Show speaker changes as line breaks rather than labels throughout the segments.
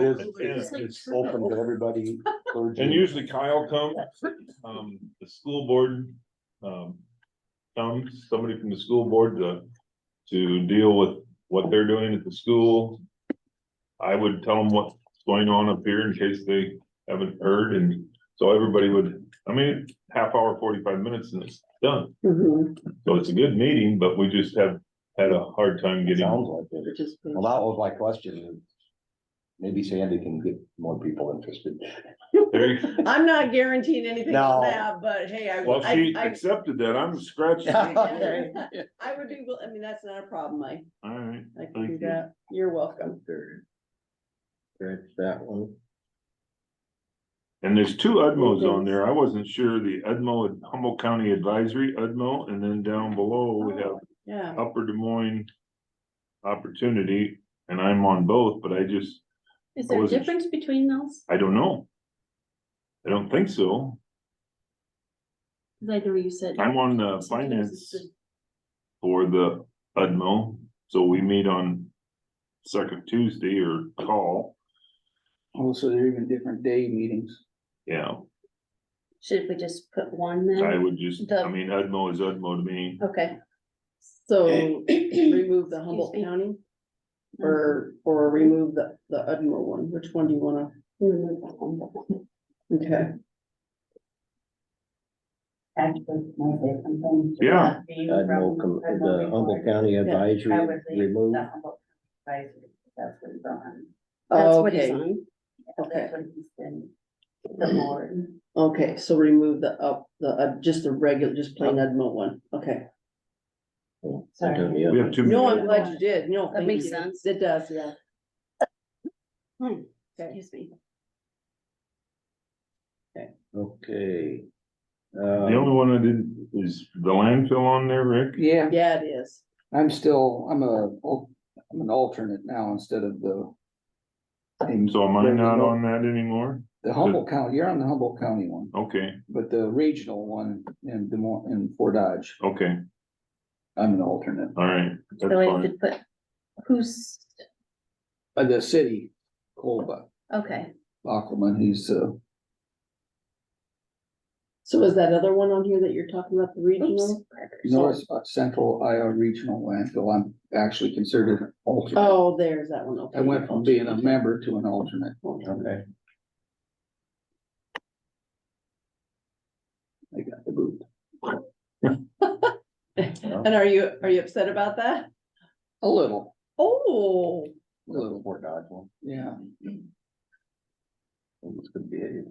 It is, it is, it's open to everybody. clergy.
And usually Kyle comes, um, the school board, um. Comes, somebody from the school board to, to deal with what they're doing at the school. I would tell them what's going on up here in case they haven't heard, and so everybody would, I mean, half hour, forty-five minutes and it's done.
Mhm,
So it's a good meeting, but we just have had a hard time getting,
Sounds like it.
which is good.
Well, that was my question. Maybe Sandy can get more people interested.
there you
I'm not guaranteeing anything on
No.
that, but hey, I,
Well, she
would- I, I,
accepted that, I'm scratching.
Okay.
I would be, will- I mean, that's not a problem, I,
Alright,
I can
Thank
do
you.
that, you're welcome.
Scratch that one.
and there's two Udmos on there, I wasn't sure, the Udmo at Humboldt County Advisory, Udmo, and then down below, we have
Yeah,
Upper Des Moines. Opportunity, and I'm on both, but I just,
Is
I
there a
wasn't
difference between those?
I don't know. I don't think so,
'Cause I know you said.
I'm on the
sometimes it's
finance
the-
for the Udmo, so we meet on. Second Tuesday or call,
Also, Oh, they're even different day meetings.
yeah,
Should we just put one
I
Mm-hmm.
then?
would just, I
The-
mean, Udmo is Udmo to me.
Okay.
so remove the Humboldt
Excuse me. Uh-huh.
County or, or remove the, the Udmo one, which one do you wanna,
Remove that one.
okay,
Actually, my favorite thing.
Yeah.
The Humboldt County
I would
Advisory
leave
removed.
the Humboldt advisory, that's what he's on.
That's what it's
okay,
on.
okay,
That's what he's been, the board.
okay, so remove the up, the, uh, just the regular, just plain Udmo one, okay.
Sorry.
We have two.
No,
meetings.
I'm glad you did, no,
That
thank
makes
you.
sense.
It does, yeah.
Hmm,
Okay.
Excuse me.
Okay. Um,
The only one I didn't, is the landfill on there, Rick?
Yeah,
Yeah, it is.
I'm still, I'm a, I'm an alternate now instead of the.
So am I not on that anymore?
The Humboldt County, you're on the Humboldt County one,
Okay,
but the regional one in Des Moines, in Fort Dodge,
okay,
I'm an alternate.
all right, that's
So I
fine.
could put, who's,
Uh, the city, Colba,
okay,
Aquaman, he's, uh,
So is that other one on here that you're talking about, the
oops.
regional?
North uh, Central Iowa Regional Landfill, I'm actually considered an alternate.
Oh, there's that one, okay.
I went from being a member to an alternate.
Okay,
I got the boot. uh-huh.
And are you, are you upset about that?
A little,
Oh,
a little,
Fort Dodge one.
yeah.
It's gonna be a-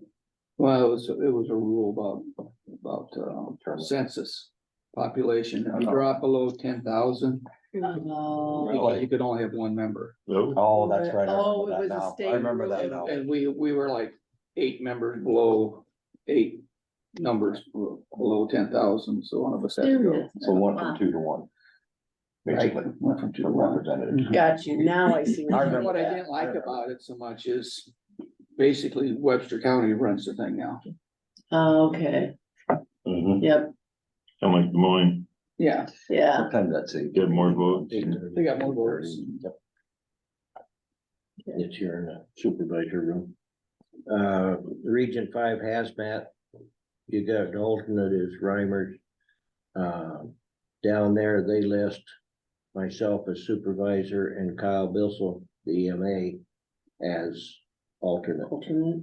Well, it was, it was a rule about, about uh, census population. If you drop below ten thousand,
Mm-hmm.
oh,
Really?
you could only have one member.
No,
Oh, that's right. I
Oh,
remember
it
that
was a
now.
state
I remember that now.
rule.
And we, we were like eight members below, eight numbers below ten thousand, so one of us had to go.
Serious?
So one from two to one.
Right,
Basically,
went from two to
from
one.
representatives.
got you, now I see.
I
what you
remember
mean.
What I didn't like about it so much is basically Webster County runs the thing now.
Oh, Okay,
Mm-hmm.
Mhm.
yep,
I'm like Des Moines,
Yeah,
yeah,
Sometimes that's a.
Get more votes.
They got more votes.
Yep. It's here in the supervisor room. Uh, Region Five hazmat, you got an alternate is Reimers. Uh, down there, they list myself as supervisor and Kyle Bissell, the EMA, as alternate.
alternate.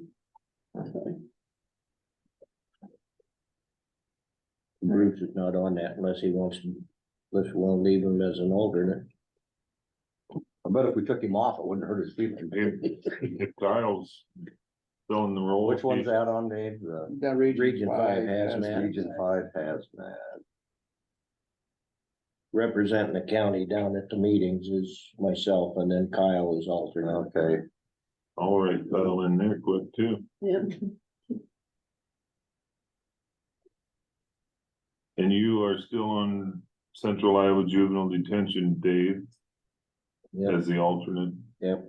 Bruce is not on that unless he wants to, unless we want to leave him as an alternate. I bet if we took him off, it wouldn't hurt his feelings.
if Kyle's filling the role.
Which one's that on, Dave? The
that region.
Region Five
has
hazmat. Five hazmat. Representing the county down at the meetings is myself and then Kyle is alternate. Okay.
All right, that'll in there quick too,
Yep,
and you are still on Central Iowa Juvenile Detention, Dave,
Yep,
as the alternate.
yep.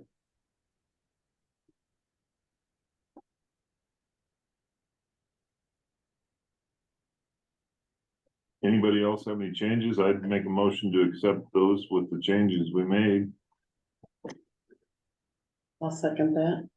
Anybody else have any changes? I'd make a motion to accept those with the changes we made.
I'll second that.